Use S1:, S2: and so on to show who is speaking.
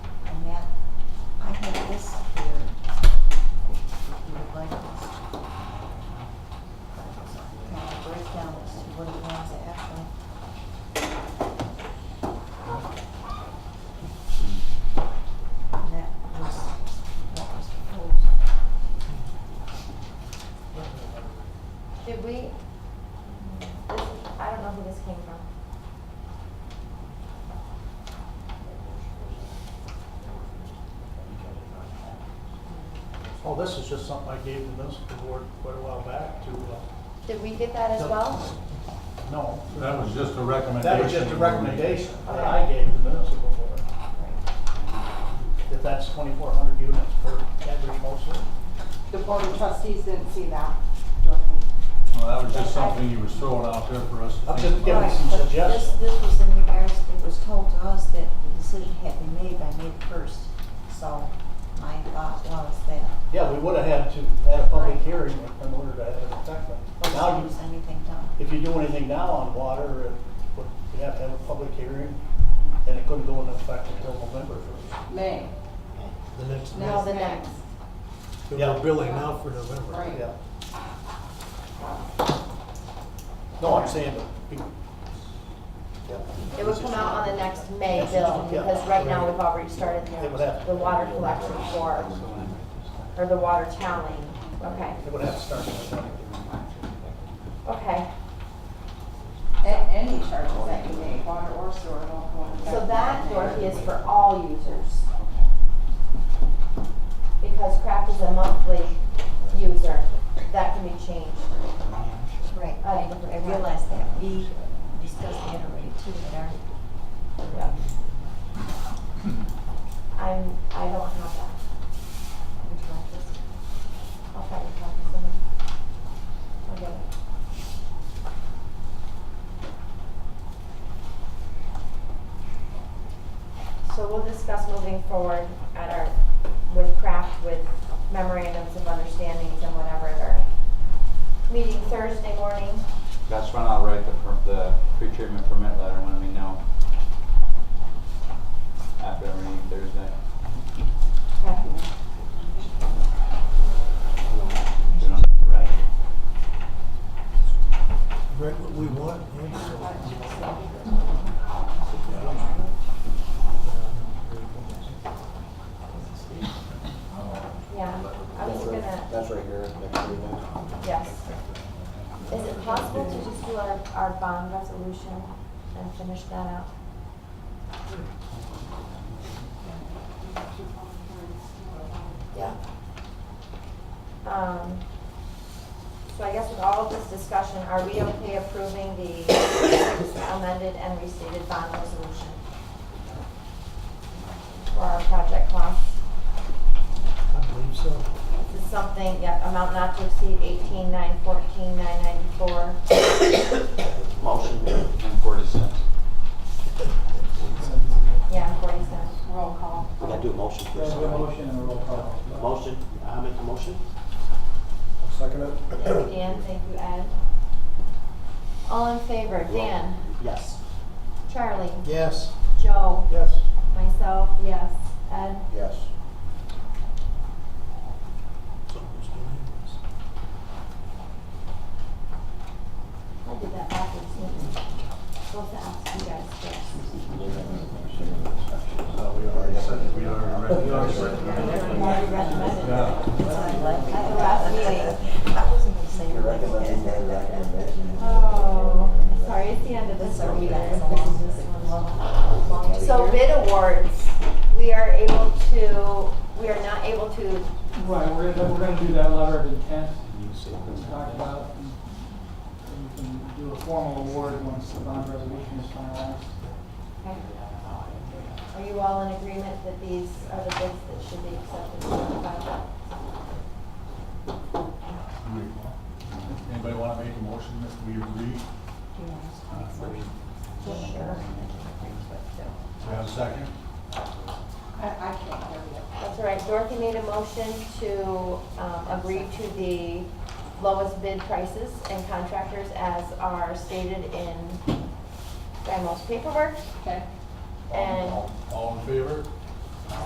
S1: have this here, if you would like us to. Kind of break down as to what it wants after. And that was what was proposed.
S2: Did we, this, I don't know who this came from.
S3: Oh, this is just something I gave the municipal board quite a while back to, uh,
S2: Did we get that as well?
S3: no.
S4: That was just a recommendation.
S3: That was just a recommendation that I gave the municipal board, that that's twenty-four hundred units per every mostly.
S5: The board of trustees didn't see that, Dorothy.
S4: Well, that was just something you were throwing out there for us to
S3: I'm
S4: think
S3: just
S4: about.
S3: giving
S1: Right,
S3: some
S1: but
S3: suggestions.
S1: This, this was in regards, it was told to us that the decision had been made by May first, so my thought was that.
S3: Yeah, we would have had to, had a public
S1: Right.
S3: hearing in order to have an effect on. Now,
S1: if
S3: you-
S1: there's anything done.
S3: if you do anything now on water, it would- you'd have to have a public hearing, and it couldn't go into effect until November first.
S5: May.
S6: The next,
S2: No, the next.
S6: so
S3: Yeah.
S6: we're billing now for November.
S5: Right.
S3: Yeah. No, I'm saying, that we- yeah.
S2: It would come out on the next May bill, because right now we've already started
S3: It would have-
S2: the, the water collection for, or the water tallying. Okay,
S3: It would have to start in November.
S2: okay.
S5: A- Any charges that you make, water or sewer, don't go into.
S2: So that, Dorothy, is for all users. Because craft is a monthly user, that can be changed.
S1: Right,
S2: I-
S1: I, I realize that, we discussed that already too, but our,
S2: Yeah. I'm, I don't have that.
S1: which one was it?
S2: I'll find a copy somewhere. I'll get it. So we'll discuss moving forward at our, with craft, with memorandums of understandings and whatever at our meeting Thursday morning.
S7: That's when I'll write the, per- the pre-treatment permit letter when we know. After our meeting Thursday. We don't have to write it.
S6: Right, what we want, and so.
S2: Yeah, I was gonna,
S7: That's right here, next to you.
S2: yes. Is it possible to just do our, our bond resolution and finish that out? Yeah. Um, so I guess with all of this discussion, are we okay approving the amended and restated bond resolution? For our project costs?
S6: I believe so.
S2: This is something, yeah, amount not to exceed eighteen nine fourteen nine ninety-four.
S7: Motion. And forty cents.
S2: Yeah, forty cents.
S5: Roll call.
S8: We gotta do a motion first.
S3: There's a motion and a roll call.
S8: Motion, I make the motion?
S3: Second it.
S2: Thank you, Dan, thank you, Ed. All in favor, Dan,
S8: Yes.
S2: Charlie,
S6: Yes.
S2: Joe,
S3: Yes.
S2: myself, yes, Ed.
S8: Yes.
S6: It's almost unanimous.
S2: I'll do that backwards, maybe. Go to ask you guys first.
S4: We already said, we already read.
S1: You already recommended it.
S4: Yeah.
S1: That's what I like.
S2: At the last meeting.
S1: I wasn't gonna say. You're recommending
S2: Oh, sorry, it's the end of the survey, guys. So bid awards, we are able to, we are not able to
S9: Right, we're gonna, we're gonna do that letter of intent, we talked about, and and we can do a formal award once the bond resolution is finalized.
S2: Okay. Are you all in agreement that these are the bids that should be accepted and ratified?
S4: Anybody wanna make a motion that we agree? Do we have a second?
S5: I, I can't hear you.
S2: That's all right, Dorothy made a motion to um, agree to the lowest bid prices and contractors as are stated in Dymo's paperwork.
S5: Okay.
S2: And
S4: All in favor?